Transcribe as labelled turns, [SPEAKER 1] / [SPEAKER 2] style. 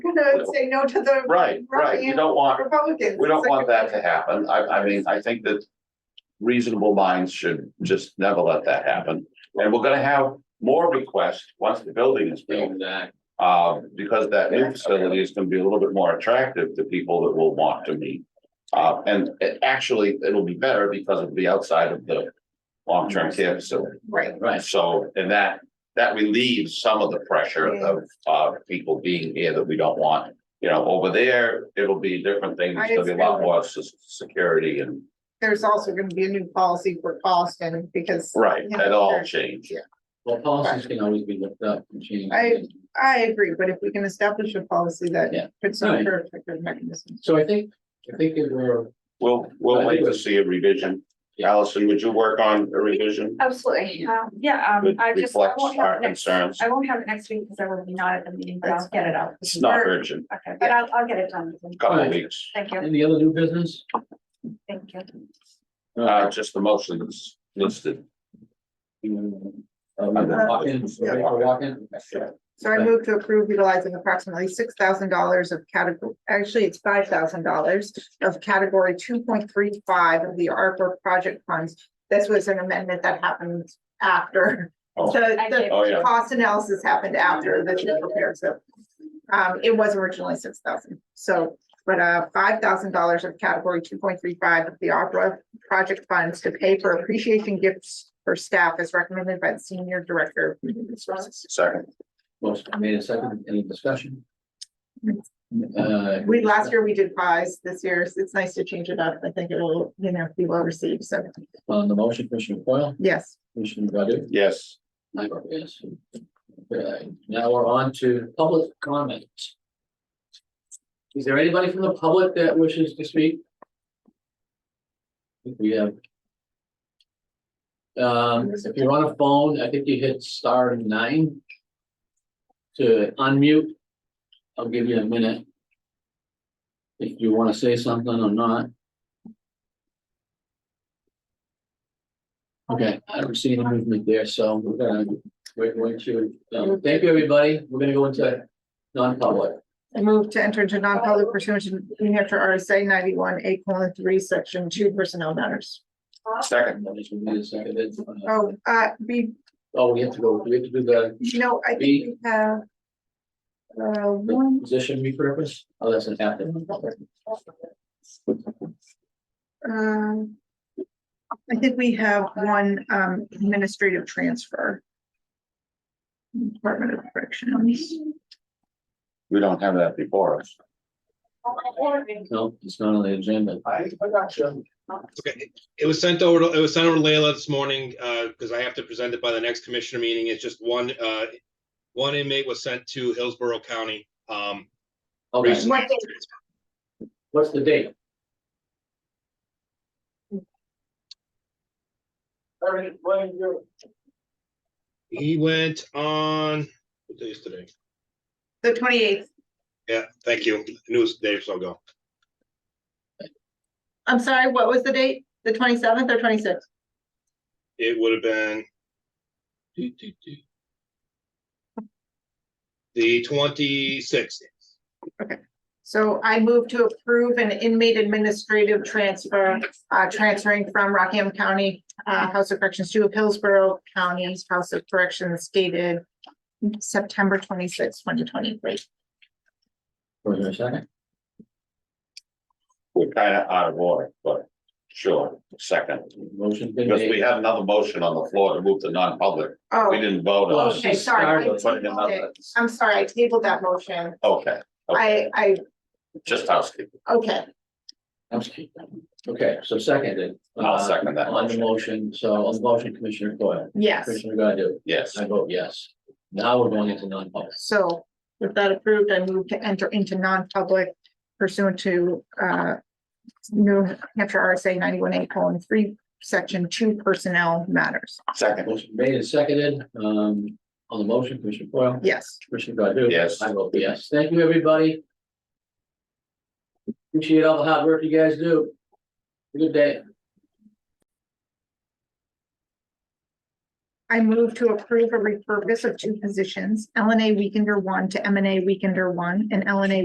[SPEAKER 1] gonna say no to the.
[SPEAKER 2] Right, right, you don't want,
[SPEAKER 1] Republicans.
[SPEAKER 2] we don't
[SPEAKER 1] It's
[SPEAKER 2] want
[SPEAKER 1] like-
[SPEAKER 2] that to happen, I, I mean, I think that reasonable minds should just never let that happen, and we're gonna have more requests once the building is built.
[SPEAKER 3] Exactly.
[SPEAKER 2] Uh, because that new facility is gonna be a little bit more attractive to people that will want to meet. Uh, and it actually, it'll be better because it'll be outside of the long-term care facility.
[SPEAKER 1] Right,
[SPEAKER 3] Right,
[SPEAKER 2] So, and that, that relieves some of the pressure of, uh, people being here that we don't want. You know, over there, it'll be a different thing, there's gonna be a lot more se- security and,
[SPEAKER 1] there's also gonna be a new policy for Boston because
[SPEAKER 2] right, that all changed.
[SPEAKER 3] well, policies can always be looked up and changed.
[SPEAKER 1] I- I agree, but if we can establish a policy
[SPEAKER 3] Yeah.
[SPEAKER 1] that puts some
[SPEAKER 3] Right.
[SPEAKER 1] protective mechanisms.
[SPEAKER 3] So I think, I think it were,
[SPEAKER 2] We'll, we'll wait to see a revision. Allison, would you work on a revision?
[SPEAKER 4] Absolutely, um, yeah, um,
[SPEAKER 2] It
[SPEAKER 4] I just, I
[SPEAKER 2] reflects
[SPEAKER 4] won't have
[SPEAKER 2] our
[SPEAKER 4] it next,
[SPEAKER 2] concerns.
[SPEAKER 4] I won't have it next week because I will be not at the meeting, but I'll
[SPEAKER 1] That's
[SPEAKER 4] get it
[SPEAKER 1] fine.
[SPEAKER 4] out.
[SPEAKER 2] It's not urgent,
[SPEAKER 4] Okay, but I'll, I'll get it done.
[SPEAKER 2] a couple of weeks.
[SPEAKER 4] Thank you,
[SPEAKER 3] any other new business?
[SPEAKER 4] thank you.
[SPEAKER 2] Uh, just the motions listed.
[SPEAKER 3] Um, walk in, ready for walk in?
[SPEAKER 1] So I move to approve utilizing approximately six thousand dollars of category, actually, it's five thousand dollars of category two point three five of the ARPA project funds. This was an amendment that happened after,
[SPEAKER 2] Oh.
[SPEAKER 1] so
[SPEAKER 4] I
[SPEAKER 1] the
[SPEAKER 4] get-
[SPEAKER 2] Oh, yeah.
[SPEAKER 1] cost analysis happened after the chief prepared, so. Um, it was originally six thousand, so, but, uh, five thousand dollars of category two point three five of the opera project funds to pay for appreciation gifts for staff as recommended by the senior director. of Human Resources.
[SPEAKER 2] Second,
[SPEAKER 3] Motion made a second, any discussion? Uh,
[SPEAKER 1] Mm. We, last year we did pies, this year, it's- it's nice to change it up, I think it will, you know, be well received, so,
[SPEAKER 3] On the motion, Commissioner Foil,
[SPEAKER 1] yes.
[SPEAKER 3] Commissioner Godu?
[SPEAKER 2] yes.
[SPEAKER 3] I vote yes. Okay, now we're on to public comment. Is there anybody from the public that wishes to speak? I think We have. Um, if you're on a phone, I think you hit star nine. To unmute. I'll give you a minute. If you wanna say something or not. Okay, I don't see any movement there, so we're gonna, wait, wait, you, um, thank you, everybody, we're gonna go into non-public.
[SPEAKER 1] I move to enter into non-public pursuant to New Hampshire RSA ninety-one, eight colon three, section two, personnel matters.
[SPEAKER 2] Second,
[SPEAKER 3] And then we can do the second, uh,
[SPEAKER 1] Oh, uh, be,
[SPEAKER 3] Oh, we have to go, do we have to do the
[SPEAKER 1] no, I think we have. Uh,
[SPEAKER 3] the
[SPEAKER 1] one,
[SPEAKER 3] position repurpose, oh, that's an happening.
[SPEAKER 1] um. I think we have one, um, administrative transfer. Department of Corrections.
[SPEAKER 2] we don't have that before us.
[SPEAKER 3] No, it's not on the agenda,
[SPEAKER 2] I, I got you.
[SPEAKER 5] Okay, it was sent over, to- it was sent over to Layla this morning, uh, because I have to present it by the next commissioner meeting. It's just one, uh, one inmate was sent to Hillsborough County. Um,
[SPEAKER 3] okay,
[SPEAKER 1] What-
[SPEAKER 3] what's the date?
[SPEAKER 5] he went on, what day is today?
[SPEAKER 1] The twenty-eighth,
[SPEAKER 5] Yeah, thank you. I Knew it was Dave, so I'll go.
[SPEAKER 1] I'm sorry, what was the date? The twenty-seventh or twenty-sixth?
[SPEAKER 5] It would have been the twenty-sixth.
[SPEAKER 1] So I move to approve an inmate administrative transfer, uh, transferring from Rockingham County, uh, House of Corrections to Hillsborough County's House of Corrections dated September twenty-sixth, twenty twenty-three.
[SPEAKER 3] Was there a second?
[SPEAKER 2] We're kind of out of order, but sure, second.
[SPEAKER 3] Motion's been
[SPEAKER 2] Because we
[SPEAKER 3] made,
[SPEAKER 2] had another motion on the floor to move to non-public. We
[SPEAKER 1] Oh,
[SPEAKER 2] didn't vote on it.
[SPEAKER 1] okay, sorry. I
[SPEAKER 3] Let's
[SPEAKER 2] Put it in
[SPEAKER 1] tabled
[SPEAKER 2] another-
[SPEAKER 1] it. I'm sorry, I tabled that motion.
[SPEAKER 2] Okay,
[SPEAKER 1] I, I,
[SPEAKER 2] just housekeeping.
[SPEAKER 1] okay,
[SPEAKER 3] okay, so seconded.
[SPEAKER 2] I'll second that
[SPEAKER 3] Uh, On the
[SPEAKER 2] motion.
[SPEAKER 3] motion, so on the motion, Commissioner Coyle,
[SPEAKER 1] yes.
[SPEAKER 3] Commissioner Godu,
[SPEAKER 2] Yes,
[SPEAKER 3] I vote yes. Now we're going into non-public.
[SPEAKER 1] So with that approved, I move to enter into non-public pursuant to uh. New Hampshire RSA ninety-one eight colon three, section two personnel matters.
[SPEAKER 2] second,
[SPEAKER 3] Motion made and seconded, um, on the motion, Commissioner Coyle,
[SPEAKER 1] Yes.
[SPEAKER 3] Commissioner Godu?
[SPEAKER 2] Yes.
[SPEAKER 3] I vote yes. Thank you, everybody. Appreciate all the hard work you guys do. Good day.
[SPEAKER 1] I move to approve a repurpose of two positions, LNA Weekender one to MNA Weekender one and LNA